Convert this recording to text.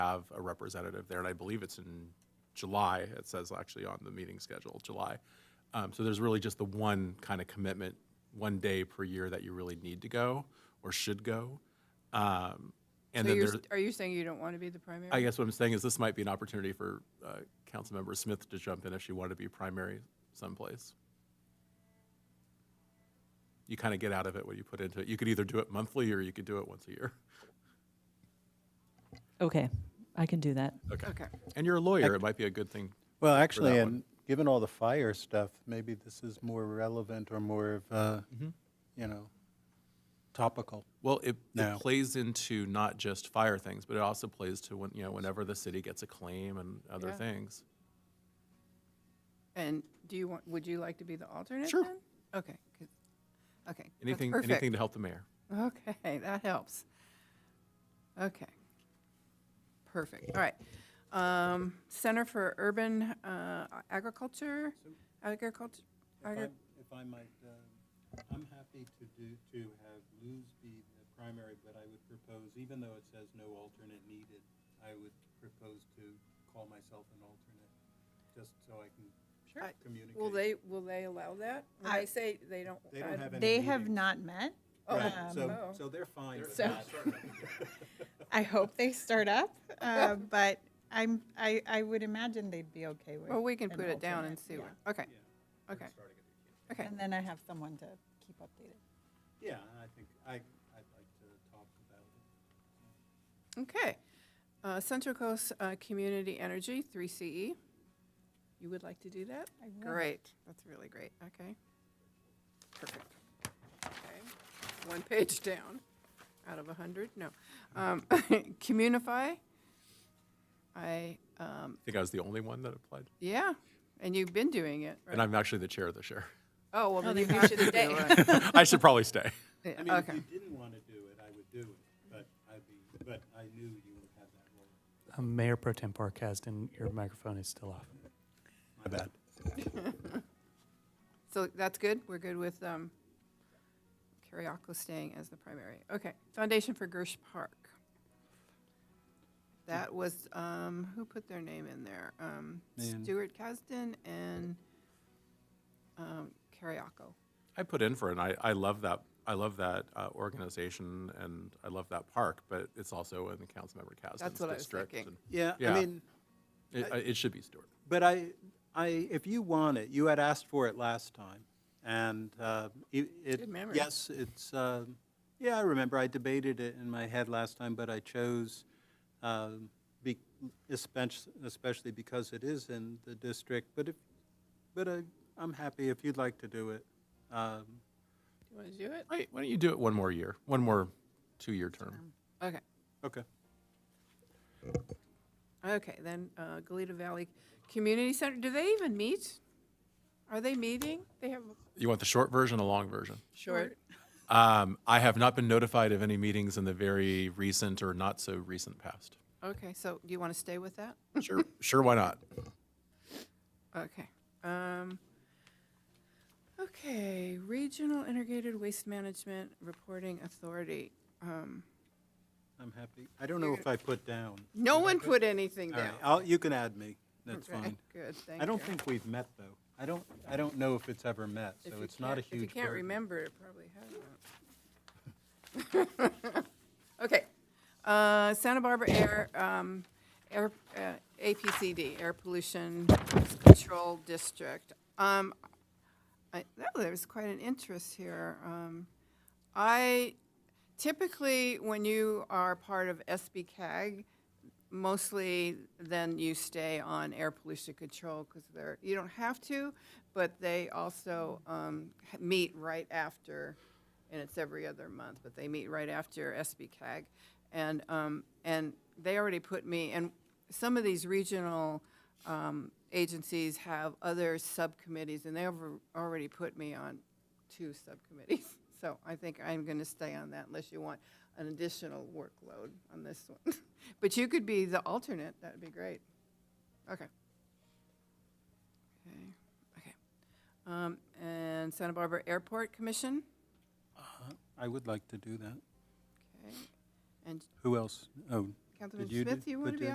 have a representative there, and I believe it's in July. It says actually on the meeting schedule, July. Um, So there's really just the one kind of commitment, one day per year that you really need to go or should go. Um, And So then you're, there's, s- are you saying you don't want to be the primary? I guess what I'm saying is this might be an opportunity for uh, Councilmember Smith to jump in if she wanted to be primary someplace. You kind of get out of it what you put into it. You could either do it monthly or you could do it once a year. Okay, I can do that. Okay. And you're a lawyer, it might be a good thing. Well, actually, that one. and given all the fire stuff, maybe this is more relevant or more of, a, Mm-hmm. you know, topical. Well, it, it No. plays into not just fire things, but it also plays to when, you know, whenever the city gets a claim and other Yeah. things. And do you want, would you like to be the alternate Sure. then? Okay. good. Okay. that's Anything, perfect. anything to help the mayor. Okay, that helps. Okay. Perfect. All right. Um, Center for Urban uh, Agriculture, agriculture, agri- If I might, uh, I'm happy to do, to have Luz be the primary, but I would propose, even though it says no alternate needed, I would propose to call myself an alternate, just so I Sure. I- can communicate. will they, will they allow that? When I- they say they don't. They don't I- have any They have meetings. not met. Oh, Right, oh. so, so they're fine with So- that. I hope they start up, uh, but I'm, I, I would imagine they'd be okay with. Well, we can an put it down and alternate, see. yeah. what- Okay. Okay. Okay. And then I have someone to keep updated. Yeah, I think, I, I'd like to talk about it. Okay. Uh, Central Coast uh, Community Energy, 3CE. You would like to do that? I would. Great, that's really great, okay. Perfect. Okay, one page down out of a 100, no. Um, Communify, I, um, I think I was the only one that applied. yeah, and you've been doing it, And right? I'm actually the chair of the share. Oh, well, then you should stay. I should probably stay. Yeah, I mean, if Okay, you didn't want to do it, I would do it, but I'd be, but I knew you would have that role. Uh, Mayor Pro Tem Barkasden, your microphone is still off. My bad. so that's good, we're good with um, Kiriako staying as the primary. Okay, Foundation for Gersh Park. That was, um, who put their name in there? Um, Man. Stuart Kasdan and um, Kiriako. I put in for it, and I, I love that, I love that uh, organization, and I love that park, but it's also in the Councilmember Casden's what I was district. thinking. and Yeah, Yeah. I mean, It, I- it should be Stewart. but I, I, if you want it, you had asked for it last time, and uh, it, it- Good memory. yes, it's, um, yeah, I remember, I debated it in my head last time, but I chose, um, be- espec- especially because it is in the district, but if, but I, I'm happy if you'd like to do it. Um, You want to do it? Why, why don't you do it one more year, one more two-year term? Okay, Okay. okay, then uh, Goleta Valley Community Center, do they even meet? Are they meeting? They have You want the short version, the long version? short, Um, I have not been notified of any meetings in the very recent or not so recent past. okay, so do you want to stay with that? Sure, sure, why not? Okay. um, Okay, Regional Integrated Waste Management Reporting Authority. Um, I'm happy. I don't know if I put down. No one put anything All right, down. I'll, you can add me. That's Okay, fine. Good, thank you. I don't think we've met, though. I don't, I don't know if it's ever met, If so you it's not a can't- If huge you can't burden. remember, it probably hasn't. Okay, uh, Santa Barbara Air, um, Air, uh, APCD, Air Pollution Control District. Um, I, oh, there was quite an interest here. Um, I, typically, when you are part of SBCAG, mostly then you stay on air pollution control because they're, you don't have to, but they also um, h- meet right after, and it's every other month, but they meet right after SBCAG. And, um, and they already put me, and some of these regional um, agencies have other subcommittees, and they have already put me on two subcommittees. So I think I'm going to stay on that unless you want an additional workload on this one. But you could be the alternate, that'd be great. Okay. Okay, okay. Um, And Santa Barbara Airport Commission, I would like to do that. okay. And Who else? Oh, Councilman you do- Smith, you want to put be it-